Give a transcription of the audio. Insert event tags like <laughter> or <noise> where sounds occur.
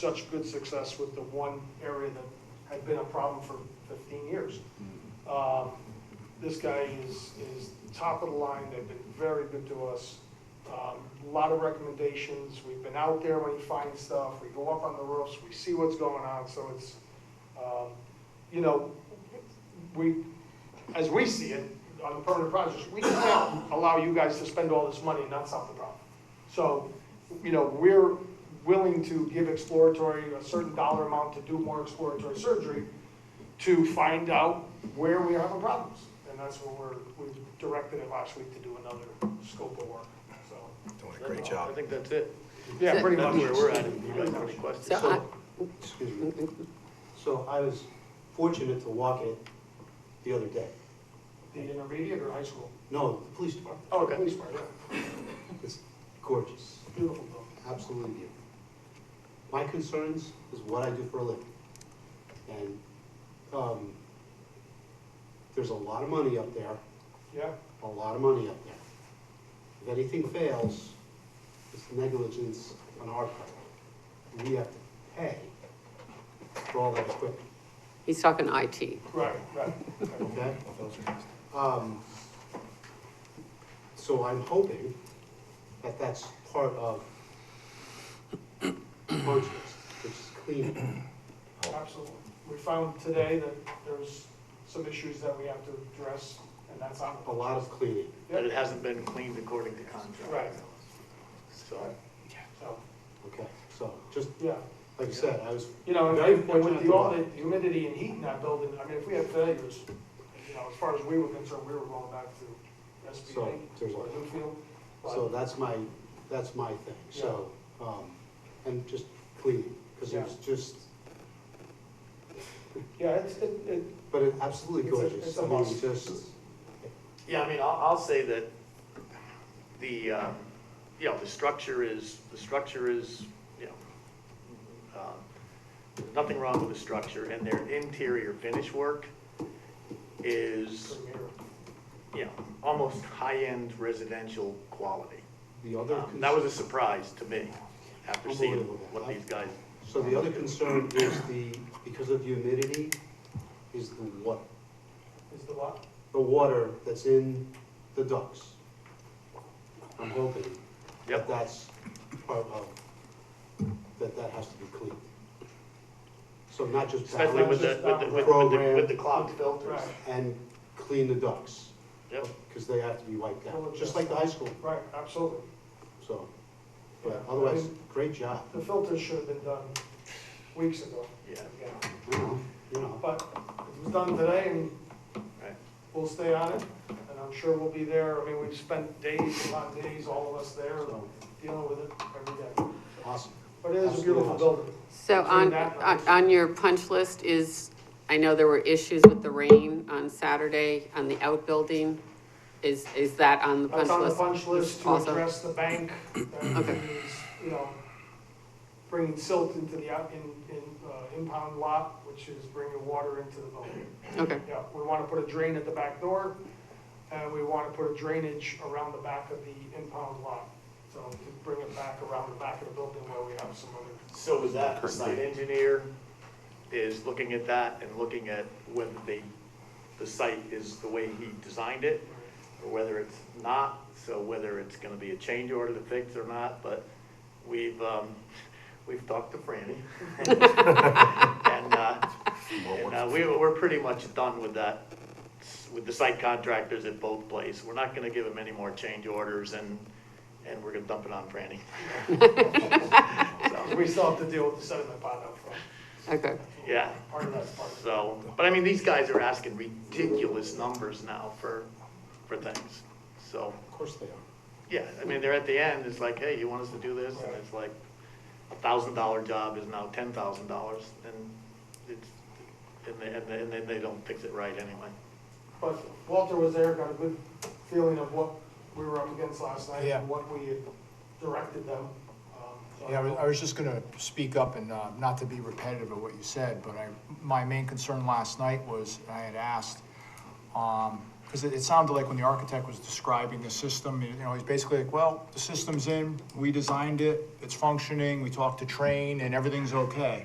such good success with the one area that had been a problem for 15 years. Um, This guy is, is top of the line, they've been very good to us. Um, A Lot of recommendations, we've been out there when he finds stuff, we go up on the roofs, we see what's going on, so it's, um, you know, we, as we see it, on the permanent projects, we can't allow you guys to spend all this money and not solve the problem. So, you know, we're willing to give exploratory, a certain dollar amount to do more exploratory surgery to find out where we are having problems. And that's what we're, we directed it last week to do another scope of work, so, Doing a great job. I think that's it. yeah, pretty much. That's where we're at, if you guys have any questions. So I, Excuse me. So I was fortunate to walk it the other day. The intermediate or high school? No, the police department. Oh, the police part, yeah, It's gorgeous, beautiful building. absolutely beautiful. My concerns is what I do for a living. And, um, there's a lot of money up there, Yeah, a lot of money up there. If anything fails, it's negligence on our part. We have to pay for all that equipment. he's talking IT. right, <laughs> right. right. Okay? Um, So I'm hoping that that's part of punch list, which is cleaning. Absolutely. We found today that there's some issues that we have to address, and that's on a lot of cleaning. But it hasn't been cleaned according to contract. Right. So, So, Okay, so just, yeah, like I said, I was, you know, and- Very and with the, fortunate. all the humidity and heat in that building, I mean, if we had failures, you know, as far as we were concerned, we were going back to So, SBA there's a- or Newfield. so But, that's my, that's my thing, so, um, and just cleaning, because it was just, yeah, it's, it, it, but it absolutely It's a- gorgeous. it's a I mean, must. Just, yeah, I mean, I'll, I'll say that the, um, you know, the structure is, the structure is, you know, um, there's nothing wrong with the structure, and their interior finish work is, premier. you know, almost high-end residential quality. the other. Um, That was a surprise to me, after seeing Unbelievable. what these guys So the other concern is the, because of the humidity, is the water, Is the what? the water that's in the ducts. I'm hoping that Yep. that's part of, that that has to be cleaned. So not just. Especially with the, balance with the, with the- with the, with the Program. clogged filters. Right, And clean the ducts, Yep, because they have to be wiped Well, out, just like the high school, right, absolutely. so. But otherwise, Yeah. great job, The filters should have been done weeks ago. Yeah. Again. you know, you know, But it was done today and right. we'll stay on it, and I'm sure we'll be there. I mean, we've spent days, a lot of days, all of us there, so, dealing with it every day. awesome. But it is a beautiful building. So Between on, that on and- on your punch list is, I know there were issues with the rain on Saturday on the outbuilding. Is, is that on the punch That's on the list? punch list to Also. address the bank, uh, that Okay. is, you know, bringing silt into the out- in- in, uh, impound lot, which is bringing water into the building. Okay, Yeah, we want to put a drain at the back door, and we want to put a drainage around the back of the impound lot. So to bring it back around the back of the building where we have some other So is that, the site engineer is looking at that and looking at whether the, the site is the way he designed it, or whether it's not, so whether it's gonna be a change order to fix or not, but we've, um, <laughs> we've talked to Franny. <laughs> And, uh, and uh, we, we're pretty much done with that, with the site contractors at both places. We're not gonna give them any more change orders and, and we're gonna dump it on Franny. So, We still have to deal with the sediment pond up front. okay. Yeah. Part of that's part of it. So, but I mean, these guys are asking ridiculous numbers now for, for things. So, Of course they are. yeah, I mean, they're at the end, it's like, hey, you want us to do this? And it's like, a thousand dollar job is now ten thousand dollars, and it's, and they, and they- and then they don't fix it right anyway. But Walter was there, got a good feeling of what we were up against last night Yeah. and what we had directed them. Um, so Yeah, I was- I was just gonna speak up and, uh, not to be repetitive of what you said, but I, my main concern last night was, I had asked, um, Because it, it sounded like when the architect was describing the system, you know, he's basically like, well, the system's in, we designed it, it's functioning, we talked to train, and everything's okay.